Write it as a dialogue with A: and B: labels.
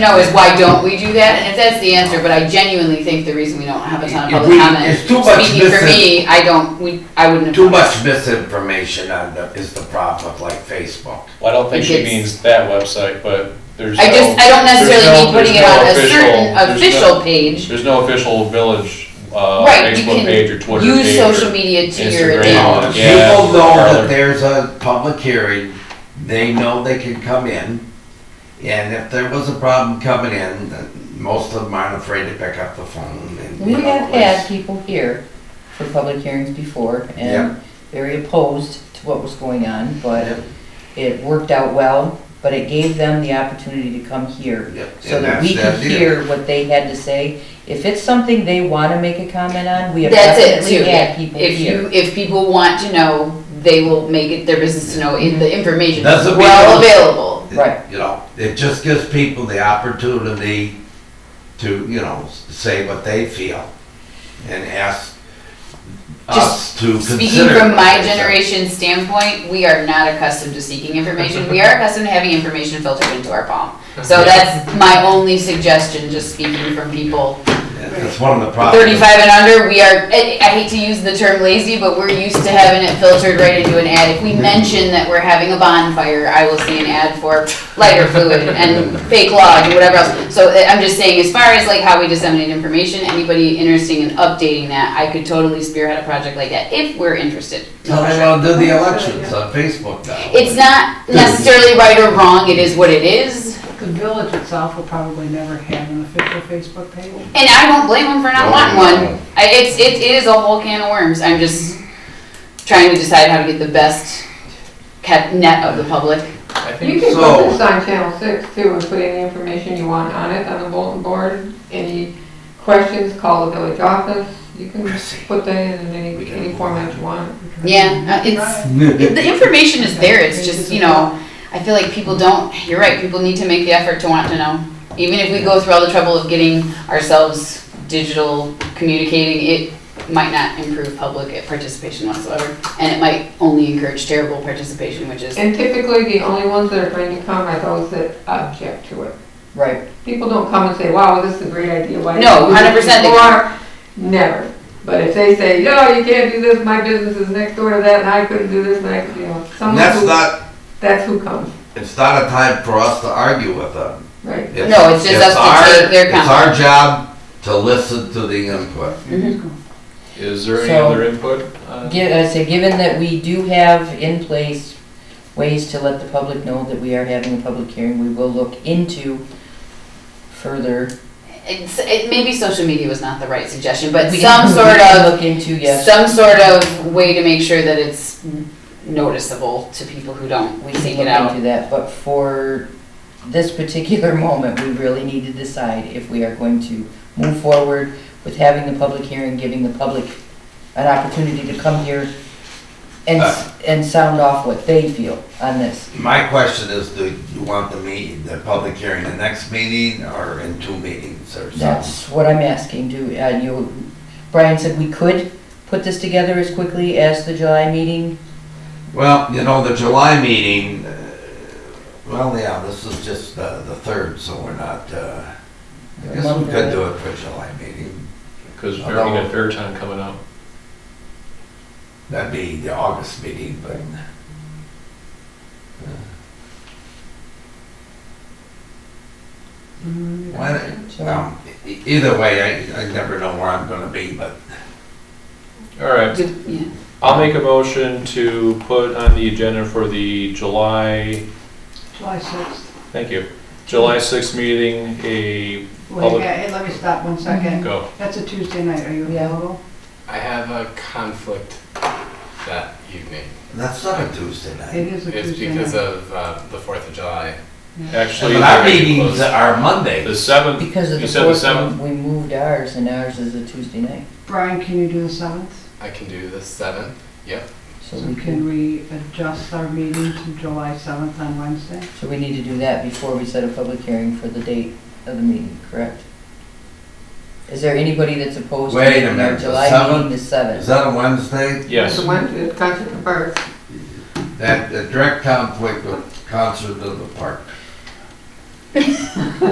A: know is why don't we do that? And if that's the answer, but I genuinely think the reason we don't have a ton of
B: If
A: public
B: we-
A: comment.
B: it's too much
A: Speaking for
B: misin-
A: me, I don't, we, I wouldn't have.
B: Too much misinformation on the, is the problem with like Facebook.
C: Well, I don't think she
A: It's-
C: means that website, but there's.
A: I just,
C: no-
A: I don't necessarily
C: there's no-
A: mean putting it
C: there's no
A: on a certain
C: there's no-
A: official page.
C: There's no official village, uh,
A: Right, you
C: Facebook
A: can
C: page or Twitter
A: Use
C: page. or-
A: social media to your
C: Instagram.
A: advantage.
B: If
C: yeah,
B: People know that
C: parlor.
B: there's a public hearing, they know they can come in. And if there was a problem coming in, then most of them aren't afraid to pick up the phone and.
D: We
B: you know,
D: have
B: it's-
D: had people here for public hearings before
B: Yeah.
D: and very opposed to what was going on,
B: Yep.
D: but it worked out well, but it gave them the opportunity to come here
B: Yep,
D: so
B: and
D: that we
B: that's
D: could
B: the idea.
D: hear what they had to say. If it's something they want to make a comment on, we have
A: That's it
D: definitely
A: too.
D: had people
A: If
D: here.
A: you, if people want to know, they will make it their business to know if
B: Mm-hmm.
A: the information is
B: Doesn't mean-
A: well available.
D: Right.
B: You know, it just gives people the opportunity to, you know, s- say what they feel and ask us to consider.
A: Speaking from
B: what
A: my
B: they say.
A: generation standpoint, we are not accustomed to seeking information. We are accustomed to having information filtered into our palm. So that's my only suggestion, just speaking from people
B: Yeah, That's one of the problems.
A: 35 and under, we are, I I hate to use the term lazy, but we're used to having it filtered right into an ad. If we mention that we're having a bonfire, I will see an ad for lighter fluid and fake log and whatever else. So I- I'm just saying, as far as like how we disseminate information, anybody interested in updating that, I could totally spearhead a project like that if we're interested.
B: Tell them I'll do the elections on Facebook now.
A: It's not necessarily right or wrong, it is what it is.
E: The village itself will probably never have an official Facebook page.
A: And I don't blame them for not wanting one. I, it's, it, it is a whole can of worms. I'm just trying to decide how to get the best kept net of the public.
C: I
F: You
C: think,
F: can
B: So-
F: put this on channel six too and put any information you want on it on the bulletin board. Any questions, call the village office. You can put that in
B: We
F: any,
B: can-
F: any format you want.
A: Yeah, uh, it's, it- the information is there. It's just, you know, I feel like people don't, you're right, people need to make the effort to want to know. Even if we go through all the trouble of getting ourselves digital communicating, it might not improve public participation whatsoever. And it might only encourage terrible participation, which is
F: And typically, the only ones that are going to come are those that object to it.
D: Right,
F: People don't come and say, wow, this is a great idea, why?
A: No,
F: didn't you do this
A: 100% they
F: before?" Never. But if they say, no, you can't do this, my business is next door to that, and I couldn't do this, and I could, you know.
B: And
F: someone
B: that's
F: who-
B: not,
F: That's who comes,
B: it's not a time for us to argue with them.
F: right?
A: No, it's just us to
B: our-
A: take their
B: It's our job to listen to the input.
C: is there any
D: So-
C: other input? Uh, on-
D: Gi- I say, given that we do have in place ways to let the public know that we are having a public hearing, we will look into further.
A: It's, it, maybe social media was not the right suggestion, but
D: We
A: some
D: can- we
A: sort
D: can
A: of
D: Look into, yes.
A: some sort of way to make sure that it's noticeable to people who don't
D: we
A: seek
D: can
A: it
D: look
A: out.
D: into that, but for this particular moment, we really need to decide if we are going to move forward with having the public hearing, giving the public an opportunity to come here and,
B: Uh.
D: s- and sound off what they feel on this.
B: My question is, do you want the meeting, the public hearing, the next meeting or in two meetings or something?
D: That's what I'm asking, do, uh, you, Brian said we could put this together as quickly as the July meeting.
B: Well, you know, the July meeting, uh, well, yeah, this is just uh, the third, so we're not, uh, I guess we could do it for July meeting.
C: Cause we're gonna get fair time coming up.
B: That'd be the August meeting, but. uh, Why not?
D: So,
B: Well, e- either way, I, I never know where I'm gonna be, but
C: All right,
A: Do- yeah.
C: I'll make a motion to put on the agenda for the July,
E: July 6th.
C: thank you, July sixth meeting, a,
E: Wait, yeah, hey, let me stop one second.
C: go.
E: That's a Tuesday night, are you
D: Yeah.
E: available?
G: I have a conflict that evening.
B: that's not a Tuesday night.
E: It is a
G: It's
E: Tuesday
G: because
E: night.
G: of uh, the Fourth of July.
C: Actually,
B: But our
C: they're gonna be
B: meetings
C: closed.
B: are Monday.
C: the seventh,
D: Because of
C: You
D: the
C: said the
D: fourth,
C: seventh?
D: one, we moved ours and ours is a Tuesday night,
E: Brian, can you do the 7th?
G: I can do the seventh. Yep.
D: so
E: So
D: we could.
E: can we adjust our meeting to July 7th on Wednesday?
D: So we need to do that before we set a public hearing for the date of the meeting, correct? Is there anybody that's opposed to
B: Wait a
D: making our
B: minute, the
D: July meeting the
B: Is
D: seventh?
B: that a Wednesday?
C: yes,
F: It's a Wednesday, it's Concept of Parks.
B: That, a direct conflict with Concert of the Park.